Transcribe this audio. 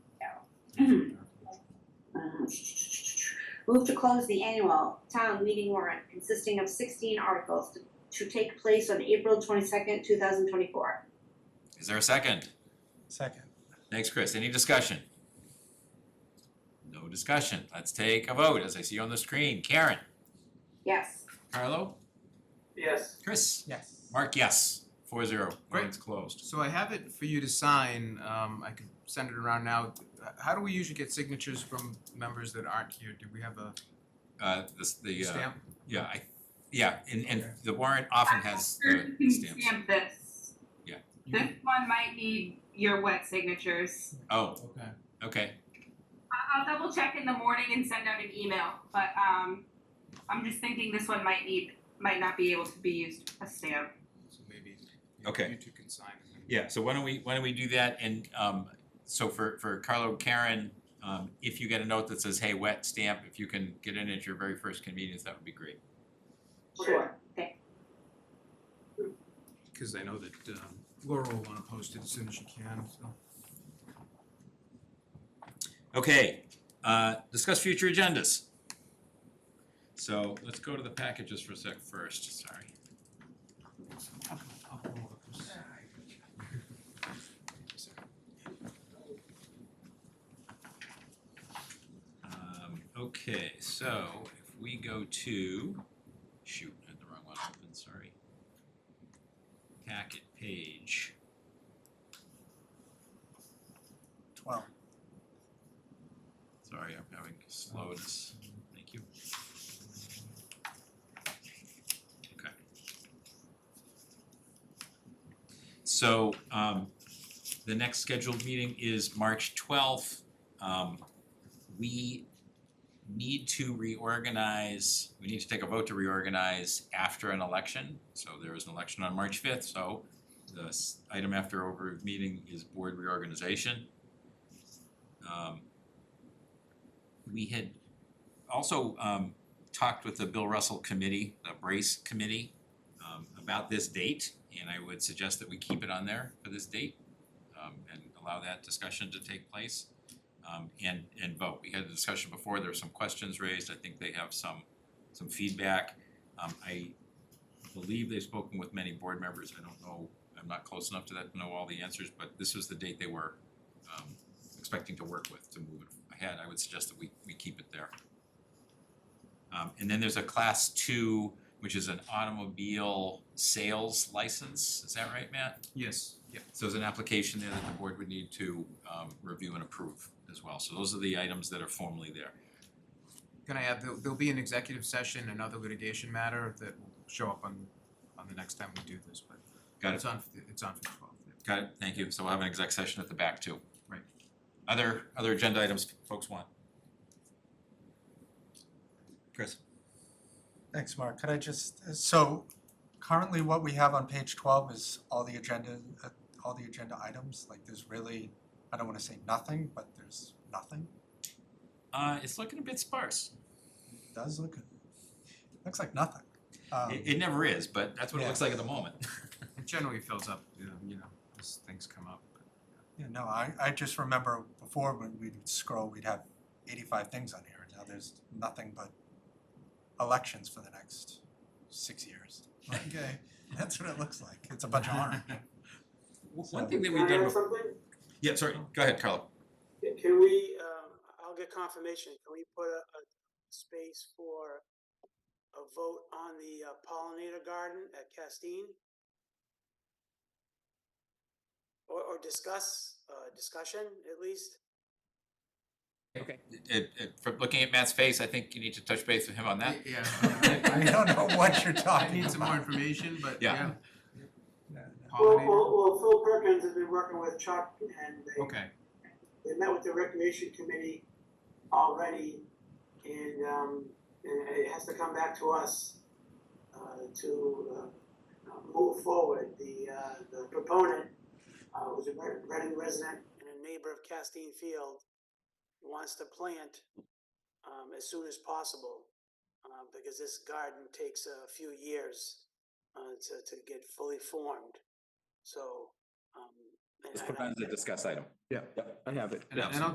Uh, Move to close the annual town meeting warrant consisting of sixteen articles to- to take place on April twenty-second, two thousand twenty-four. Is there a second? Second. Thanks, Chris. Any discussion? No discussion. Let's take a vote as I see on the screen. Karen, Yes. Carlo, Yes. Chris, Yes. Mark, yes. Four zero. Warrant's closed. So I have it for you to sign, um, I can send it around now. How do we usually get signatures from members that aren't here? Do we have a Uh, this, the, uh, stamp? yeah, I, yeah, and, and Okay. the warrant often has Sure, the you can stamps. stamp this. You This can- one might need your wet signatures. Oh, Okay. okay. I- I'll double check in the morning and send out an email, but, um, I'm just thinking this one might need, might not be able to be used a stamp. So maybe you- Okay. you two can sign it. Yeah, so why don't we, why don't we do that and um so for for Carlo, Karen, um if you get a note that says, hey, wet stamp, if you can get in at your very first convenience, that would be great. Sure. Cause I know that um, Laura will wanna post it as soon as she can, so. Okay, uh discuss future agendas. So let's go to the packages for a sec first, sorry. I'll go- I'll go over this. Um okay, so if we go to, shoot, I had the wrong one open, sorry. Packet page. Twelve. Sorry, I'm having slowness. Thank you. Okay. So um the next scheduled meeting is March twelfth. Um we need to reorganize, we need to take a vote to reorganize after an election. So there is an election on March fifth, so the s- item after over meeting is board reorganization. Um we had also um talked with the Bill Russell Committee, the Brace Committee, um about this date, and I would suggest that we keep it on there for this date um and allow that discussion to take place um and and vote. We had a discussion before, there were some questions raised, I think they have some some feedback. Um I believe they've spoken with many board members, I don't know, I'm not close enough to that to know all the answers, but this was the date they were um expecting to work with to move it ahead, I would suggest that we we keep it there. Um and then there's a class two, which is an automobile sales license, is that right, Matt? Yes, yeah. So there's an application there that the board would need to um review and approve as well, so those are the items that are formally there. Can I add, there'll, there'll be an executive session, another litigation matter that will show up on, on the next time we do this, but Got it. it's on, for the- it's on for the twelfth, yeah. Got it, thank you, so we'll have an exec session at the back too. Right. Other other agenda items folks want? Chris? Thanks, Mark. Could I just, uh, so currently what we have on page twelve is all the agenda, uh, all the agenda items, like there's really, I don't wanna say nothing, but there's nothing. Uh it's looking a bit sparse. It Does look, looks like nothing. Um, It it never is, but that's what it Yeah. looks like at the moment. It generally fills up, you know, you know, as things come up. Yeah, no, I, I just remember before when we'd scroll, we'd have eighty-five things on here. Now there's nothing but elections for the next six years. Okay, that's what it looks like. It's a bunch of orange. One thing that Can we've I done, add before- something? yeah, sorry, go ahead, Carlo. Can we, um, I'll get confirmation, can we put a, a space for a vote on the uh, pollinator garden at Castine? Or, or discuss, uh, discussion at least? It, it, from looking at Matt's face, I think you need to touch base with him on that. Yeah. I don't know what you're I talking need some more about. information, but Yeah. yeah, No, no. Well, pollinator, well, well, Phil Perkins has been working with Chuck and they, okay, they met with the recreation committee already. And, um, and it has to come back to us, uh, to, uh, uh, move forward. The, uh, the proponent, uh, was a Red- Reading resident and a neighbor of Castine Field. Wants to plant, um, as soon as possible, uh, because this garden takes a few years, uh, to, to get fully formed. So, um. and- This and I- provides a discuss item. Yeah, I have it. and and I'll Absolutely.